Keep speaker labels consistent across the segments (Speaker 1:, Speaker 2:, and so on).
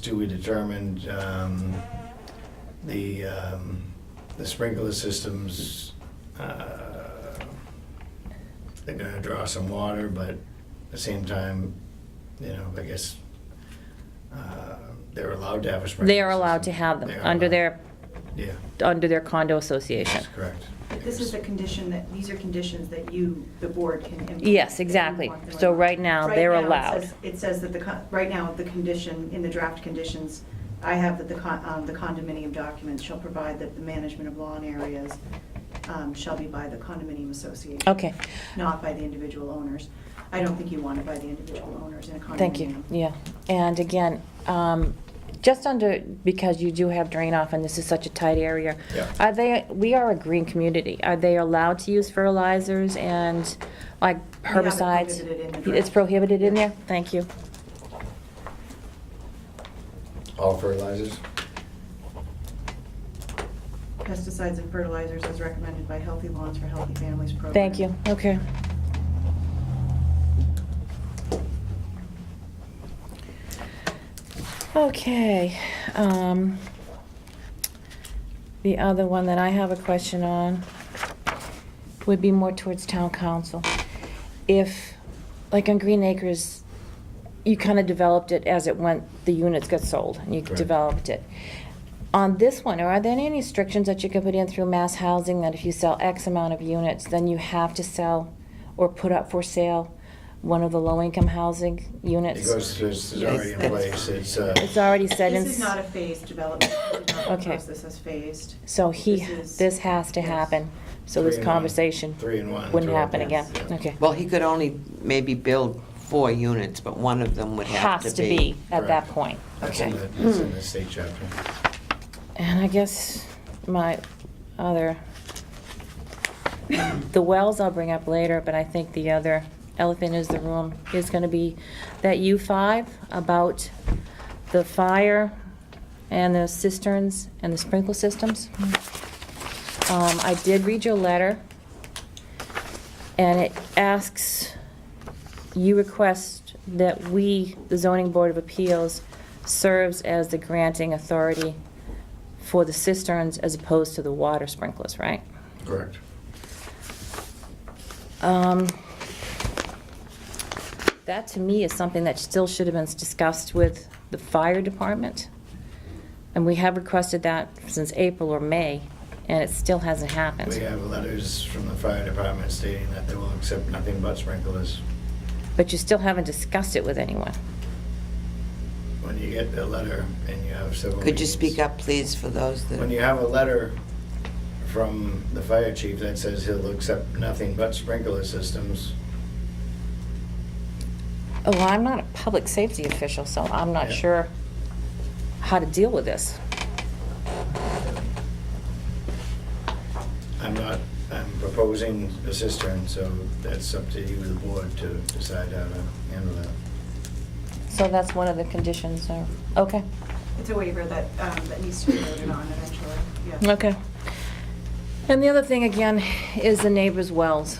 Speaker 1: too, we determined um, the, um, the sprinkler systems, uh, they're gonna draw some water, but at the same time, you know, I guess, uh, they're allowed to have a sprinkler.
Speaker 2: They are allowed to
Speaker 1: system.
Speaker 2: have them
Speaker 1: They are
Speaker 2: under
Speaker 1: allowed.
Speaker 2: their,
Speaker 1: Yeah,
Speaker 2: under their condo association.
Speaker 1: that's correct.
Speaker 3: But This is a condition that, these are conditions that you, the board can implement.
Speaker 2: Yes, exactly.
Speaker 3: if you want them.
Speaker 2: So right now,
Speaker 3: Right
Speaker 2: they're
Speaker 3: now, it
Speaker 2: allowed.
Speaker 3: says- It says that the, con- right now, the condition, in the draft conditions, I have that the con- um, the condominium documents shall provide that the management of lawn areas um, shall be by the condominium association.
Speaker 2: Okay.
Speaker 3: Not by the individual owners. I don't think you want it by the individual owners in a condominium.
Speaker 2: Thank you, yeah. And again, um, just under, because you do have drain off and this is such a tight area.
Speaker 1: Yeah.
Speaker 2: Are they, we are a green community. Are they allowed to use fertilizers and like
Speaker 3: We have it
Speaker 2: herbicides?
Speaker 3: prohibited in the draft.
Speaker 2: It's prohibited in there? Thank you.
Speaker 1: All fertilizers?
Speaker 3: Pesticides and fertilizers as recommended by Healthy Lawns for Healthy Families program.
Speaker 2: Thank you, okay. Okay, um, the other one that I have a question on would be more towards town council. If, like on Green Acres, you kind of developed it as it went, the units got sold, and you
Speaker 1: Correct.
Speaker 2: developed it. On this one, are there any restrictions that you can put in through mass housing that if you sell X amount of units, then you have to sell or put up for sale one of the low-income housing
Speaker 1: It
Speaker 2: units?
Speaker 1: goes, it's it's already in
Speaker 3: Yes.
Speaker 1: place, it's, uh,
Speaker 2: It's already set in.
Speaker 3: This is not a phased development. The development
Speaker 2: Okay.
Speaker 3: Process is phased.
Speaker 2: So he,
Speaker 3: This is-
Speaker 2: this has to
Speaker 3: yes.
Speaker 2: happen, so
Speaker 1: Three
Speaker 2: this
Speaker 1: in one.
Speaker 2: conversation
Speaker 1: Three in one.
Speaker 2: wouldn't
Speaker 1: Three in
Speaker 2: happen
Speaker 1: one.
Speaker 2: again,
Speaker 1: Yes.
Speaker 2: okay.
Speaker 4: Well, he could only maybe build four units, but one of them would have
Speaker 2: Has to be at that
Speaker 1: Correct.
Speaker 2: point,
Speaker 1: that's
Speaker 2: okay.
Speaker 1: in the, that's in the state chapter.
Speaker 2: And I guess my other, the wells I'll bring up later, but I think the other elephant is the room is gonna be that U five about the fire and the cisterns and the sprinkle systems. Um, I did read your letter, and it asks, you request that we, the zoning board of appeals, serves as the granting authority for the cisterns as opposed to the water sprinklers, right?
Speaker 1: Correct.
Speaker 2: Um, That, to me, is something that still should have been discussed with the fire department. And we have requested that since April or May, and it still hasn't happened.
Speaker 1: We have letters from the fire department stating that they will accept nothing but sprinklers.
Speaker 2: But you still haven't discussed it with anyone.
Speaker 1: When you get the letter and you have several.
Speaker 4: Could you
Speaker 1: meetings-
Speaker 4: speak up, please, for those
Speaker 1: When you
Speaker 4: that,
Speaker 1: have a letter from the fire chief that says he'll accept nothing but sprinkler systems,
Speaker 2: Oh, well, I'm not a public safety official, so I'm not
Speaker 1: Yeah.
Speaker 2: sure how to deal with this.
Speaker 1: I'm not, I'm proposing a cistern, so that's up to you, the board, to decide how to handle that.
Speaker 2: So that's one of the conditions, or- okay,
Speaker 3: It's a waiver that, um, that needs to be voted on eventually, yeah.
Speaker 2: okay. And the other thing, again, is the neighbor's wells.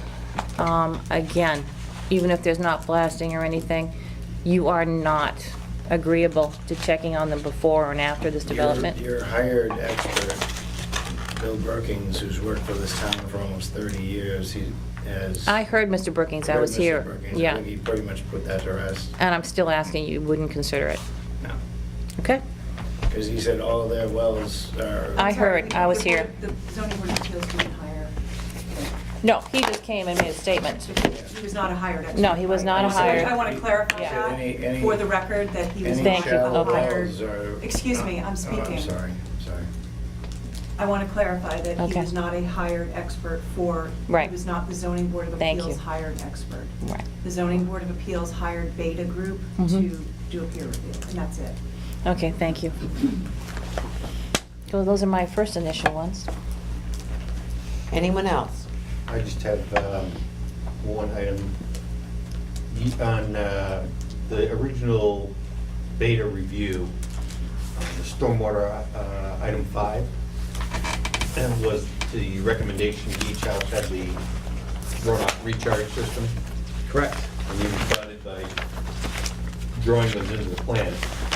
Speaker 2: Um, Again, even if there's not blasting or anything, you are not agreeable to checking on them before and after this development.
Speaker 1: Your your hired expert, Bill Brookings, who's worked for this town for almost 30 years, he has.
Speaker 2: I heard Mr. Brookings, I
Speaker 1: Heard
Speaker 2: was
Speaker 1: Mr.
Speaker 2: here,
Speaker 1: Brookings. I
Speaker 2: yeah.
Speaker 1: think He pretty much put that to rest
Speaker 2: And I'm still asking you, wouldn't consider it,
Speaker 1: now,
Speaker 2: okay?
Speaker 1: because he said all their wells are.
Speaker 2: I heard, I was here.
Speaker 3: The zoning board of appeals didn't hire,
Speaker 2: No, he just came and made a statement.
Speaker 3: he was not a hired expert.
Speaker 2: No, he was not
Speaker 1: a
Speaker 3: So I-
Speaker 1: hired-
Speaker 3: I want to clarify
Speaker 2: Yeah.
Speaker 1: Any-
Speaker 3: that
Speaker 1: any-
Speaker 3: for the record, that he was
Speaker 1: Any
Speaker 2: Thank
Speaker 3: not
Speaker 2: you,
Speaker 1: shallow
Speaker 3: a
Speaker 2: okay.
Speaker 3: hired.
Speaker 1: wells are-
Speaker 3: Excuse me, I'm
Speaker 1: Oh, I'm
Speaker 3: speaking.
Speaker 1: sorry, sorry.
Speaker 3: I want to clarify that he
Speaker 2: Okay.
Speaker 3: was not a hired expert for.
Speaker 2: Right.
Speaker 3: He was not the zoning board of
Speaker 2: Thank
Speaker 3: appeals
Speaker 2: you.
Speaker 3: hired expert.
Speaker 2: Right.
Speaker 3: The zoning board of appeals hired Beta Group
Speaker 2: Mhm.
Speaker 3: to do a peer review, and that's it.
Speaker 2: Okay, thank you. So those are my first initial ones.
Speaker 4: anyone else?
Speaker 5: I just have um, one item. Ye- On uh, the original beta review, uh, the stormwater uh, item five, and was the recommendation each house had the runoff recharge system. Correct. And you responded by drawing those into the plan.